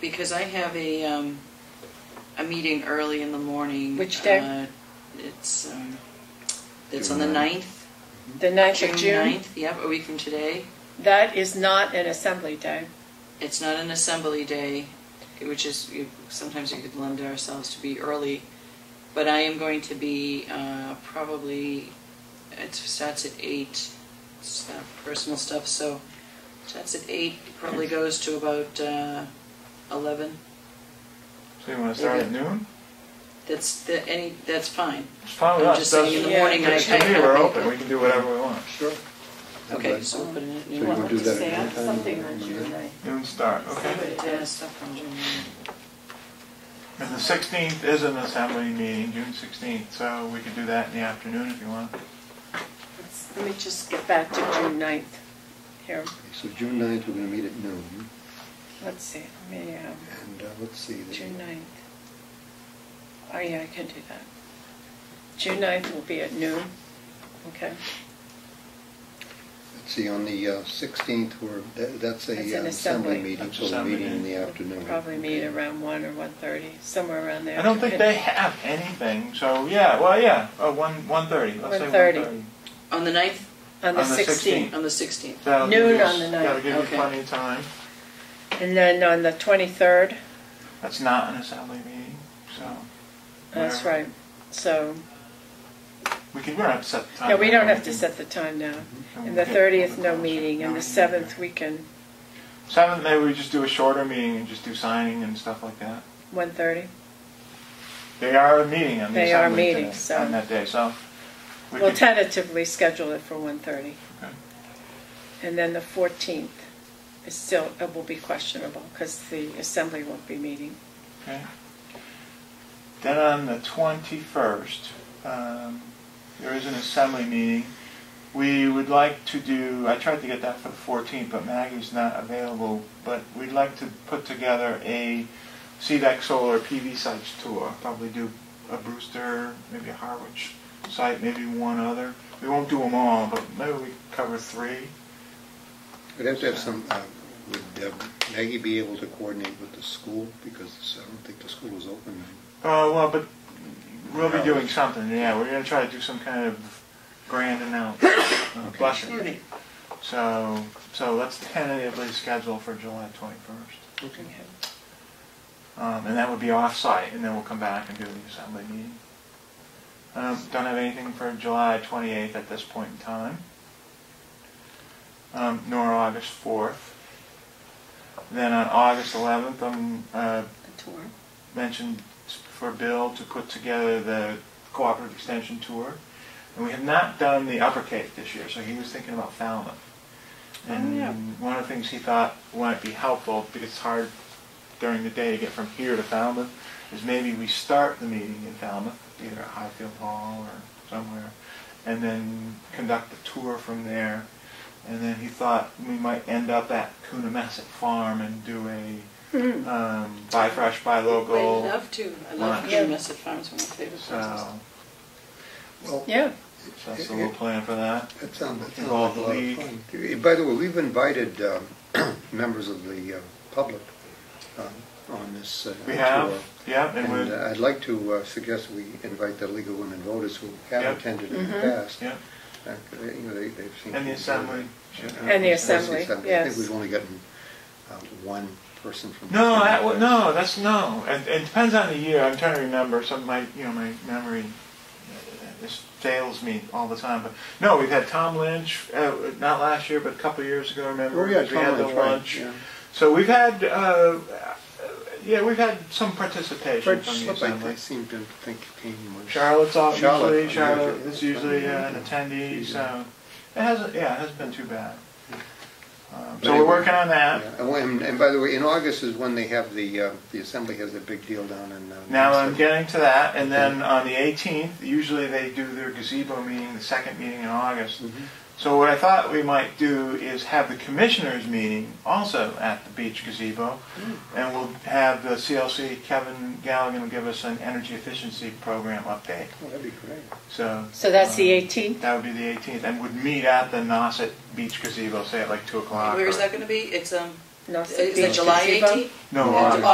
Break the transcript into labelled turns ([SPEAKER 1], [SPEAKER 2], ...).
[SPEAKER 1] Because I have a, um, a meeting early in the morning.
[SPEAKER 2] Which day?
[SPEAKER 1] Uh, It's, um, it's on the
[SPEAKER 3] June
[SPEAKER 1] 9th.
[SPEAKER 2] The 9th of
[SPEAKER 1] June
[SPEAKER 2] June,
[SPEAKER 1] 9th, yep, a week from today.
[SPEAKER 2] that is not an assembly day.
[SPEAKER 1] It's not an assembly day, which is, you- sometimes we could lend ourselves to be early, but I am going to be uh, probably, it starts at eight, it's uh, personal stuff, so starts at eight, probably goes to about uh, eleven.
[SPEAKER 3] So you want to start at
[SPEAKER 1] Okay.
[SPEAKER 3] noon?
[SPEAKER 1] That's, that, any, that's fine.
[SPEAKER 3] It's fine with
[SPEAKER 1] I'm
[SPEAKER 3] us.
[SPEAKER 1] just saying in
[SPEAKER 2] the
[SPEAKER 3] Doesn't-
[SPEAKER 2] morning,
[SPEAKER 3] it's-
[SPEAKER 1] I-
[SPEAKER 3] To me,
[SPEAKER 1] I-
[SPEAKER 3] we're open, we can do whatever we want.
[SPEAKER 4] Sure.
[SPEAKER 1] Okay, so we'll put in a
[SPEAKER 4] So you
[SPEAKER 1] new
[SPEAKER 4] wanna
[SPEAKER 1] one.
[SPEAKER 4] do that at
[SPEAKER 2] Say,
[SPEAKER 4] any
[SPEAKER 2] I'm
[SPEAKER 4] time
[SPEAKER 2] something
[SPEAKER 4] on
[SPEAKER 2] on
[SPEAKER 4] Monday?
[SPEAKER 2] June 9th.
[SPEAKER 3] Noon start, okay.
[SPEAKER 1] Yeah, stuff on June 9th.
[SPEAKER 3] And the 16th is an assembly meeting, June 16th, so we could do that in the afternoon if you want.
[SPEAKER 2] Let's- Let me just get back to June 9th here.
[SPEAKER 4] So June 9th, we're going to meet at noon,
[SPEAKER 2] Let's see, let me, um,
[SPEAKER 4] and uh, let's see. the-
[SPEAKER 2] June 9th. Oh, yeah, I can do that. June 9th will be at noon, okay?
[SPEAKER 4] Let's see, on the uh, 16th, we're, that- that's a
[SPEAKER 2] That's an assembly.
[SPEAKER 4] uh, assembly meeting,
[SPEAKER 3] That's
[SPEAKER 4] so we're
[SPEAKER 3] assembly
[SPEAKER 4] meeting in the
[SPEAKER 3] meeting.
[SPEAKER 4] afternoon.
[SPEAKER 2] Probably meet
[SPEAKER 4] Okay.
[SPEAKER 2] around 1 or 1:30, somewhere around there.
[SPEAKER 3] I don't think they have anything, so yeah, well, yeah, uh, 1, 1:30, let's say
[SPEAKER 2] 1:30.
[SPEAKER 3] 1:30.
[SPEAKER 1] On the 9th,
[SPEAKER 2] On the
[SPEAKER 3] on the
[SPEAKER 2] 16th.
[SPEAKER 1] on the 16th.
[SPEAKER 3] That'll give
[SPEAKER 2] Noon
[SPEAKER 3] you-
[SPEAKER 2] on the ninth,
[SPEAKER 3] That'll give you
[SPEAKER 1] okay.
[SPEAKER 3] plenty of time.
[SPEAKER 2] And then on the 23rd,
[SPEAKER 3] That's not an assembly meeting, so.
[SPEAKER 2] that's
[SPEAKER 3] we're-
[SPEAKER 2] right. So,
[SPEAKER 3] We can, we don't have to set the time.
[SPEAKER 2] yeah, we don't have to
[SPEAKER 3] can-
[SPEAKER 2] set the time now.
[SPEAKER 3] can
[SPEAKER 2] And the
[SPEAKER 3] get-
[SPEAKER 2] 30th, no meeting, and
[SPEAKER 3] No
[SPEAKER 2] the 7th, we can,
[SPEAKER 3] Seventh, maybe we just do a shorter meeting and just do signing and stuff like that.
[SPEAKER 2] 1:30.
[SPEAKER 3] They are a meeting on the
[SPEAKER 2] They are
[SPEAKER 3] assembly today,
[SPEAKER 2] meetings, so-
[SPEAKER 3] On that day, so. we
[SPEAKER 2] We'll
[SPEAKER 3] could-
[SPEAKER 2] tentatively schedule it for 1:30.
[SPEAKER 3] Okay.
[SPEAKER 2] And then the 14th is still, it will be questionable because the assembly won't be meeting.
[SPEAKER 3] Okay. Then on the 21st, um, there is an assembly meeting. We would like to do, I tried to get that for the 14th, but Maggie's not available, but we'd like to put together a CDEC solar PV sites tour, probably do a Brewster, maybe a Harwich site, maybe one other. We won't do them all, but maybe we cover three.
[SPEAKER 4] We'd have to have some, uh, would uh, Maggie be able to coordinate with the school, because I don't think the school is open.
[SPEAKER 3] Uh, well, but we'll be
[SPEAKER 4] Yeah.
[SPEAKER 3] doing something, yeah, we're gonna try to do some kind of grand announcement, uh, blessing. So, so let's tentatively schedule for July twenty-first.
[SPEAKER 4] Okay.
[SPEAKER 3] Um, and that would be off-site, and then we'll come back and do the assembly meeting. Um, don't have anything for July 28th at this point in time, um, nor August 4th. Then on August 11th, I'm uh,
[SPEAKER 2] The tour.
[SPEAKER 3] mentioned for Bill to put together the cooperative extension tour. And we have not done the Upper Cape this year, so he was thinking about Falmouth. And
[SPEAKER 1] yeah.
[SPEAKER 3] one of the things he thought might be helpful, because it's hard during the day to get from here to Falmouth, is maybe we start the meeting in Falmouth, either at Highfield Hall or somewhere, and then conduct the tour from there. And then he thought we might end up at Coonamessett Farm and do a um, buy fresh, buy local.
[SPEAKER 1] I love to, I love
[SPEAKER 3] lunch.
[SPEAKER 1] June Messett Farms, one of my favorite farms.
[SPEAKER 3] So,
[SPEAKER 4] Well,
[SPEAKER 2] Yeah,
[SPEAKER 3] so that's a little plan for that.
[SPEAKER 4] That sounds, that sounds like a
[SPEAKER 3] Involve
[SPEAKER 4] lot
[SPEAKER 3] the
[SPEAKER 4] of
[SPEAKER 3] league.
[SPEAKER 4] fun. Eh, By the way, we've invited um, members of the uh, public um, on this. uh,
[SPEAKER 3] We have,
[SPEAKER 4] tour.
[SPEAKER 3] yeah, and
[SPEAKER 4] And uh,
[SPEAKER 3] we're,
[SPEAKER 4] I'd like to uh, suggest we invite the League of Women Voters who have
[SPEAKER 3] Yep.
[SPEAKER 4] attended in the
[SPEAKER 2] Mm-hmm.
[SPEAKER 4] past.
[SPEAKER 3] yeah,
[SPEAKER 4] Uh, You know, they- they've seen. Uh,
[SPEAKER 3] and the assembly.
[SPEAKER 2] And the assembly,
[SPEAKER 4] I think
[SPEAKER 2] yes.
[SPEAKER 4] we've only gotten uh, one person from.
[SPEAKER 3] No,
[SPEAKER 4] from
[SPEAKER 3] that,
[SPEAKER 4] the
[SPEAKER 3] wa-
[SPEAKER 4] past.
[SPEAKER 3] no, that's, no, it, it depends on the year, I'm trying to remember, some, of my, you know, my memory uh, is- fails me all the time, but, no, we've had Tom Lynch, uh, not last year, but a couple of years ago, remember?
[SPEAKER 4] Oh, yeah,
[SPEAKER 3] We had
[SPEAKER 4] Tom
[SPEAKER 3] the
[SPEAKER 4] Lynch, right,
[SPEAKER 3] lunch.
[SPEAKER 4] yeah.
[SPEAKER 3] So we've had, uh, uh, yeah, we've had some participation
[SPEAKER 4] Fred
[SPEAKER 3] from the
[SPEAKER 4] Slip, I
[SPEAKER 3] assembly.
[SPEAKER 4] think, seemed to think came was.
[SPEAKER 3] Charlotte's off
[SPEAKER 4] Charlotte,
[SPEAKER 3] usually.
[SPEAKER 4] I'm
[SPEAKER 3] Charlotte
[SPEAKER 4] usually-
[SPEAKER 3] is usually uh, an attendee, so it hasn't. Yeah, it hasn't been too bad. Um, so we're working on that.
[SPEAKER 4] Yeah, and when- And by the way, in August is when they have the, uh, the assembly has a big deal down in. uh,
[SPEAKER 3] Now I'm
[SPEAKER 4] Boston.
[SPEAKER 3] getting to that, and then on the 18th, usually they do their gazebo meeting, the second meeting in August.
[SPEAKER 4] Mm-hmm.
[SPEAKER 3] So what I thought we might do is have the commissioners meeting also at the beach gazebo,
[SPEAKER 4] Hmm.
[SPEAKER 3] and we'll have the CLC Kevin Galligan will give us an energy efficiency program update.
[SPEAKER 4] Oh, That'd be great.
[SPEAKER 3] So
[SPEAKER 2] so that's the
[SPEAKER 3] um,
[SPEAKER 2] 18th.
[SPEAKER 3] That would be the 18th, and would meet at the Nauset Beach gazebo, say at like 2 o'clock.
[SPEAKER 1] Where is
[SPEAKER 3] or-
[SPEAKER 1] that gonna be? It's, um,
[SPEAKER 2] Not
[SPEAKER 1] is
[SPEAKER 2] the
[SPEAKER 1] it
[SPEAKER 2] beach
[SPEAKER 1] July
[SPEAKER 2] gazebo.
[SPEAKER 1] 18th?
[SPEAKER 3] No, uh,
[SPEAKER 1] That's
[SPEAKER 3] August.